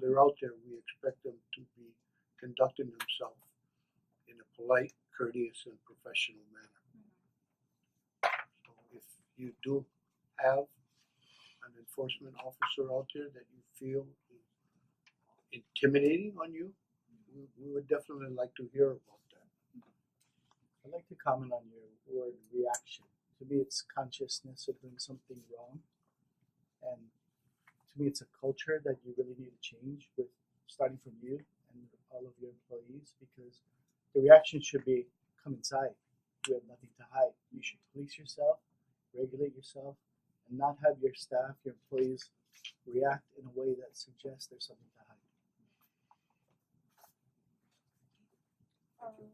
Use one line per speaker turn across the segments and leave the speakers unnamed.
they're out there, we expect them to be conducting themselves in a polite, courteous and professional manner. So if you do have an enforcement officer out there that you feel is intimidating on you, we we would definitely like to hear about that.
I'd like to comment on your word reaction. To me, it's consciousness of doing something wrong. And to me, it's a culture that you really need to change with starting from you and all of your employees because the reaction should be come inside. You have nothing to hide. You should police yourself, regulate yourself, and not have your staff, your employees react in a way that suggests there's something to hide.
Um,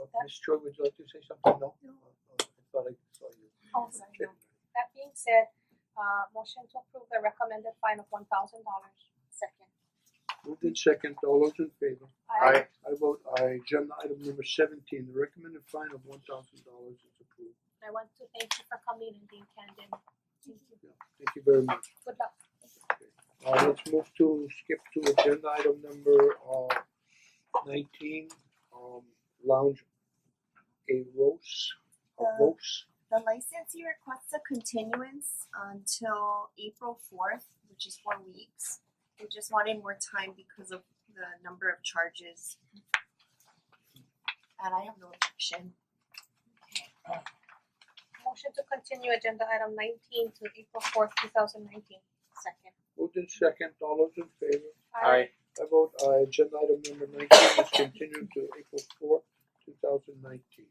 Uh,
That-
Ms. Choi, would you like to say something? No?
No.
Uh, uh, I thought I saw you.
Oh, sorry,
Okay.
no. That being said, uh, motion to approve the recommended fine of one thousand dollars. Second.
Moved in second, all those in favor?
Aye.
I vote aye, agenda item number seventeen, the recommended fine of one thousand dollars is approved.
I want to thank you for coming and being candid. Thank you.
Yeah, Thank you very much.
Good luck.
Uh let's move to skip to agenda item number uh nineteen, um lounge a rose, a
Uh,
rose.
The licensee requests a continuance until April fourth, which is four weeks. We just wanted more time because of the number of charges. And I have no objection.
Motion to continue agenda item nineteen to April fourth, two thousand nineteen. Second.
Moved in second, all those in favor?
Aye.
I vote aye, agenda item number nineteen is continued to April fourth, two thousand nineteen.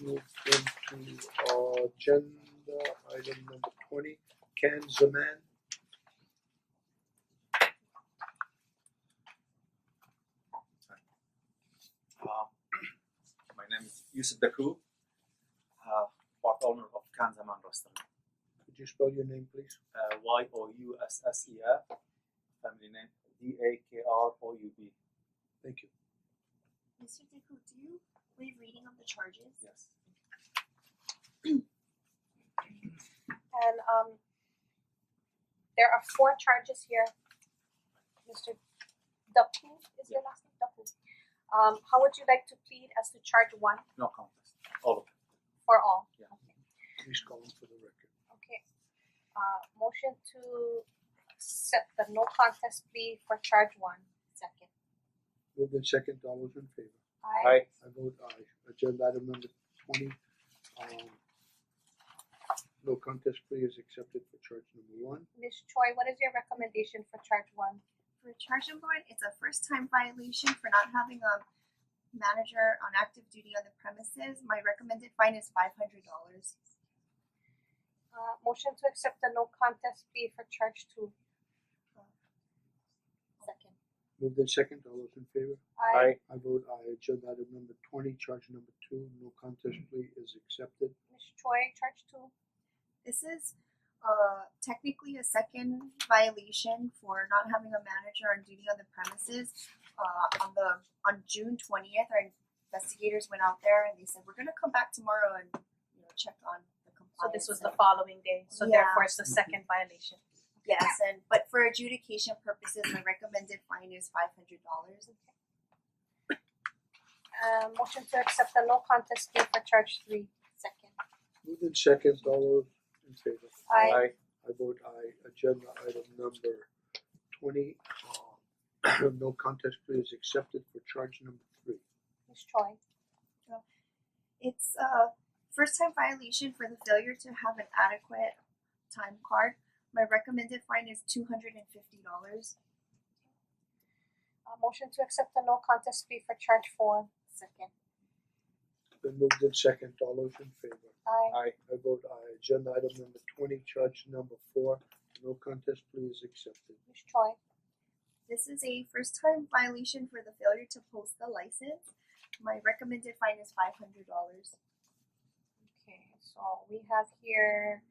Let's move into uh agenda item number twenty, Ken Zaman.
Um, my name is Yusuf Daku, uh, part owner of Kanzaman Restaurant.
Could you spell your name please?
Uh, y O U S S E F, family name D A K R O U B.
Thank you.
Mister Deku, do you waive reading of the charges?
Yes.
And um there are four charges here. Mister Dapu is your last name, Dapu. Um how would you like to plead as to charge one
No contest. All of it.
for all?
Please call him for the record.
Okay, uh motion to accept the no contest plea for charge one, second.
Moved in second, all those in favor?
Aye.
I vote aye, agenda item number twenty, um no contest plea is accepted for charge number one.
Ms. Choi, what is your recommendation for charge one?
For charge number one, it's a first time violation for not having a manager on active duty on the premises. My recommended fine is five hundred dollars.
Uh motion to accept the no contest plea for charge two. Second.
Moved in second, all those in favor?
Aye.
I vote aye, agenda item number twenty, charge number two, no contest plea is accepted.
Ms. Choi, charge two.
This is uh technically a second violation for not having a manager on duty on the premises. Uh on the on June twentieth, our investigators went out there and they said, we're gonna come back tomorrow and you know, check on the compliance.
So this was the
and-"
following day, so
Yeah.
therefore it's the second violation.
Yes, and but for adjudication purposes, my recommended fine is five hundred dollars.
Uh motion to accept the no contest plea for charge three. Second.
Moved in second, all those in favor?
Aye.
I vote aye, agenda item number twenty, uh no contest plea is accepted for charge number three.
Ms. Choi,
It's a first time violation for the failure to have an adequate time card. My recommended fine is two hundred and fifty dollars.
uh motion to accept the no contest plea for charge four. Second.
Then moved in second, all those in favor?
Aye.
Aye.
I vote aye, agenda item number twenty, charge number four, no contest plea is accepted.
Ms. Choi,
This is a first time violation for the failure to post the license. My recommended fine is five hundred dollars.
Okay, so we have here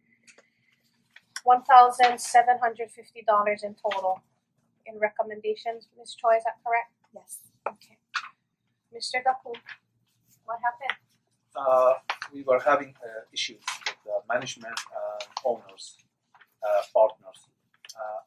one thousand seven hundred fifty dollars in total in recommendations, Ms. Choi, is that correct?
Yes.
Okay. Mister Daku, what happened?
Uh, we were having uh, issues with the management and owners, uh, partners. Uh,